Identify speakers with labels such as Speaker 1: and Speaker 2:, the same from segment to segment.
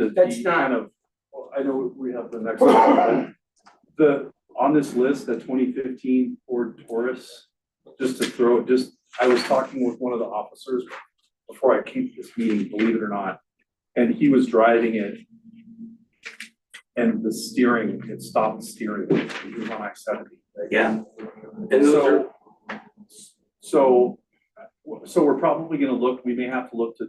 Speaker 1: the-
Speaker 2: That's
Speaker 1: the
Speaker 2: not-
Speaker 1: kind of, well, I know we have the next one, but the, on this list, the twenty fifteen Ford Taurus, just to throw, just, I was talking with one of the officers before I came to this meeting, believe it or not, and he was driving it and the steering, it stopped steering, he was on I seventy.
Speaker 2: Yeah. And those
Speaker 1: So-
Speaker 2: are,
Speaker 1: So, so we're probably gonna look, we may have to look to,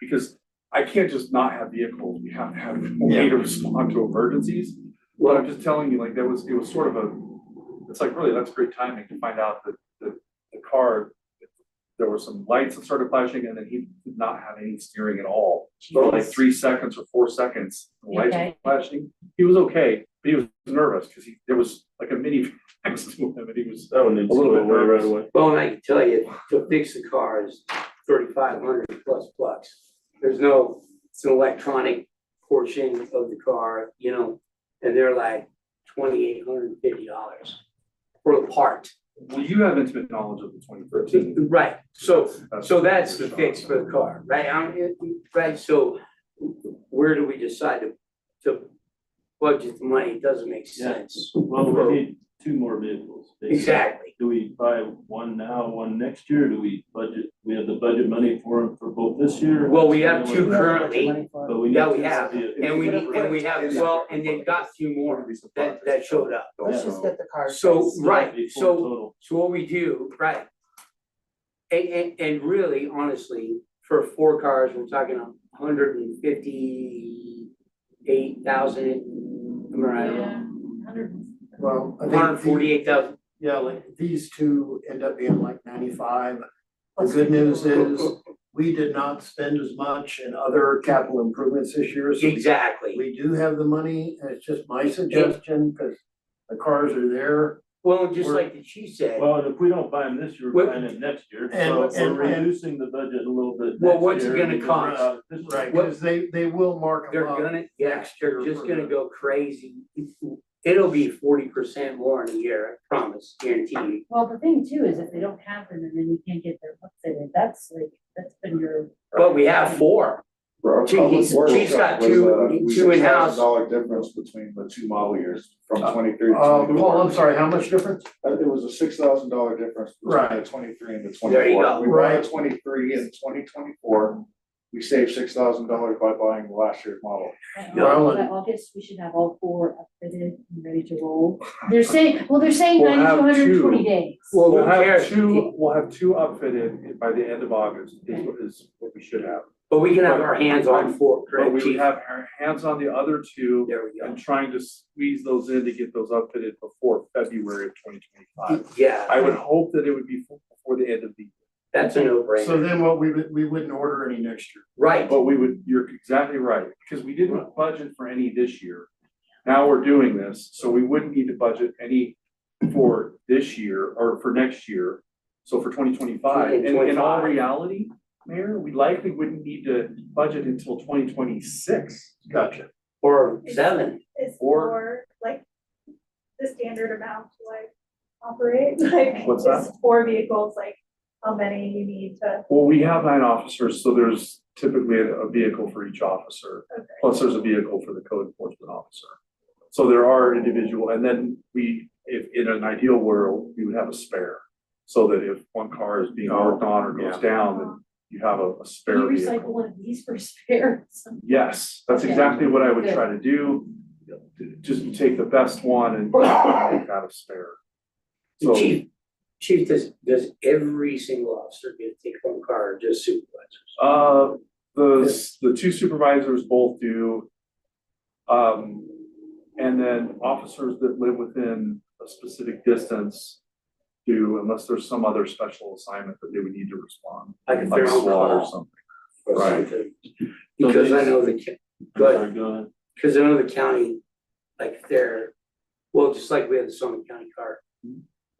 Speaker 1: because I can't just not have vehicles, we have to have a way to respond to emergencies. But I'm just telling you, like, that was, it was sort of a, it's like, really, that's great timing to find out that the, the car, there were some lights that started flashing and then he did not have any steering at all. For like
Speaker 3: Jeez.
Speaker 1: three seconds or four seconds, the lights were
Speaker 3: Okay.
Speaker 1: flashing. He was okay, but he was nervous because he, there was like a mini next to him and he was
Speaker 4: That one needs
Speaker 1: A
Speaker 4: to
Speaker 1: little
Speaker 4: go
Speaker 1: bit
Speaker 4: away right
Speaker 1: nervous.
Speaker 4: away.
Speaker 2: well, and I can tell you, to fix the car is thirty-five hundred plus bucks. There's no, it's an electronic portion of the car, you know, and they're like twenty-eight hundred and fifty dollars for the part.
Speaker 1: Well, you have intimate knowledge of the twenty thirteen.
Speaker 2: Right, so, so that's the fix for the car, right? I'm- it- Right, so where do we decide to, to budget the money? It doesn't make sense.
Speaker 4: Well, we need two more vehicles. basically.
Speaker 2: Exactly.
Speaker 4: Do we buy one now, one next year? Do we budget, we have the budget money for 'em for both this year?
Speaker 2: Well, we have two currently,
Speaker 4: But we need.
Speaker 2: Yeah, we
Speaker 4: two
Speaker 2: have,
Speaker 4: vehicles.
Speaker 2: and we, need- and we have, well, and they've got a few more that, that showed up.
Speaker 3: Let's just get the car.
Speaker 2: So,
Speaker 3: fixed.
Speaker 2: right,
Speaker 4: That'd be four
Speaker 2: so-
Speaker 4: total.
Speaker 2: So what we do, right? And, and, and really, honestly, for four cars, we're talking a hundred and fifty-eight thousand, am I right?
Speaker 5: Well, I think.
Speaker 2: Hundred and forty-eight thousand
Speaker 5: Yeah, like these two end up being like ninety-five. The good news is um, we did not spend as much in other capital improvements this year. so
Speaker 2: Exactly.
Speaker 5: We do have the money and it's just my suggestion because the cars are there.
Speaker 2: Well, just
Speaker 5: We're-
Speaker 2: like the chief said,
Speaker 4: Well, and if we don't buy them this year,
Speaker 2: Well-
Speaker 4: we're buying them next year,
Speaker 5: And-
Speaker 4: so we're
Speaker 5: and- and-
Speaker 4: reducing the budget a little bit next year.
Speaker 2: Well, what's it gonna
Speaker 4: and we're
Speaker 2: cost?
Speaker 4: out this year.
Speaker 5: Right, because they, they will mark
Speaker 2: they're
Speaker 5: them up.
Speaker 2: gonna, yeah, they're
Speaker 5: year
Speaker 2: just
Speaker 5: for
Speaker 2: gonna
Speaker 5: the-
Speaker 2: go crazy. It'll be forty percent more in a year, I promise, guarantee you.
Speaker 3: Well, the thing too is if they don't have them and then you can't get their books in, that's like, that's been your.
Speaker 2: But we have four.
Speaker 6: For our
Speaker 2: Gee,
Speaker 6: public
Speaker 2: he's-
Speaker 6: works
Speaker 2: he's got
Speaker 6: shop was,
Speaker 2: two-
Speaker 6: uh, we
Speaker 2: two
Speaker 6: $6,000
Speaker 2: in-house.
Speaker 6: Dollar difference between the two model years from
Speaker 5: Uh,
Speaker 6: twenty-three to
Speaker 5: Uh, Paul, I'm
Speaker 6: twenty-four.
Speaker 5: sorry, how much difference?
Speaker 6: Uh, It was a six thousand dollar difference between
Speaker 5: Right.
Speaker 6: the twenty-three and the twenty-four.
Speaker 2: There you go.
Speaker 6: We bought
Speaker 5: Right.
Speaker 6: a twenty-three in twenty twenty-four. We saved six thousand dollars by buying last year's model.
Speaker 3: By
Speaker 5: Yeah.
Speaker 3: August- by August, we should have all four updated and ready to roll. They're saying, well, they're saying
Speaker 1: We'll
Speaker 3: ninety to
Speaker 1: have
Speaker 3: hundred and
Speaker 1: two.
Speaker 3: twenty days.
Speaker 1: We'll
Speaker 2: who
Speaker 1: have
Speaker 2: cares?
Speaker 1: two, we'll have two outfitted by the end of August, is what is what we should have.
Speaker 2: But we can have our hands on four,
Speaker 1: But
Speaker 2: correct,
Speaker 1: we would
Speaker 2: chief?
Speaker 1: have our hands on the other two
Speaker 2: There we
Speaker 1: and trying to squeeze those in to get those outfitted before February of twenty
Speaker 2: go.
Speaker 1: twenty-five.
Speaker 2: Yeah,
Speaker 1: I would hope that it would be before the end of the year.
Speaker 2: that's a
Speaker 5: So
Speaker 2: no-brainer.
Speaker 5: then what, we, would- we wouldn't order any next year.
Speaker 2: Right,
Speaker 1: But we would, you're exactly right, because we didn't budget for any this year. Now we're doing this, so we wouldn't need to budget any for this year or for next year. So for twenty twenty-five, and in all
Speaker 2: 2025.
Speaker 1: reality, Mayor, we likely wouldn't need to budget until twenty twenty-six.
Speaker 5: Gotcha.
Speaker 2: or seven.
Speaker 7: is
Speaker 1: Or-
Speaker 7: for like the standard amount to like operate, like
Speaker 1: What's that?
Speaker 7: just four vehicles, like how many you need to,
Speaker 1: Well, we have nine officers, so there's typically a a vehicle for each officer.
Speaker 7: okay.
Speaker 1: plus there's a vehicle for the code enforcement officer. So there are individual, and then we, if in an ideal world, we would have a spare. So that if one car is being worked on or goes down,
Speaker 7: um,
Speaker 1: then you have a, a
Speaker 3: Can you
Speaker 1: spare
Speaker 3: recycle
Speaker 1: vehicle.
Speaker 3: one of these for spares?
Speaker 1: Yes, that's
Speaker 3: Okay.
Speaker 1: exactly what I would
Speaker 3: Good.
Speaker 1: try to do. Just take the best one and make that a spare. So
Speaker 2: Chief, chief, does, does every single officer get to take one car or just supervisors?
Speaker 1: Uh, the, the two supervisors both do. Um, and then officers that live within a specific distance do, unless there's some other special assignment that they would need to respond,
Speaker 2: Like if
Speaker 1: like
Speaker 2: they're on
Speaker 1: SWAT or
Speaker 2: call
Speaker 1: something.
Speaker 2: or
Speaker 1: Right.
Speaker 2: something? Because I know the, ca-
Speaker 4: I'm
Speaker 2: Good.
Speaker 4: sorry, Go ahead.
Speaker 2: Cause in another county, like they're, well, just like we had the Summit County car,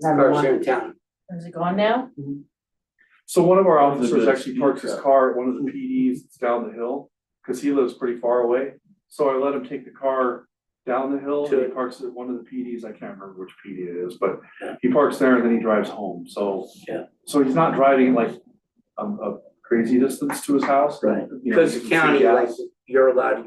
Speaker 2: cars here in town.
Speaker 3: Is it gone now?
Speaker 1: So one of our
Speaker 4: One's a
Speaker 1: officers
Speaker 4: good
Speaker 1: actually
Speaker 4: speed
Speaker 1: parks his
Speaker 4: trap.
Speaker 1: car at one of the PDs that's down the hill, cause he lives pretty far away. So I let him take the car down the hill, and he
Speaker 2: To-
Speaker 1: parks at one of the PDs, I can't remember which PD it is, but
Speaker 2: Yeah.
Speaker 1: he parks there and then he drives home, so.
Speaker 2: Yeah.
Speaker 1: So he's not driving like a, a crazy distance to his house.
Speaker 2: Right.
Speaker 1: you know,
Speaker 2: Because
Speaker 1: he
Speaker 2: the
Speaker 1: can see
Speaker 2: county, like,
Speaker 1: gas.
Speaker 2: you're allowed to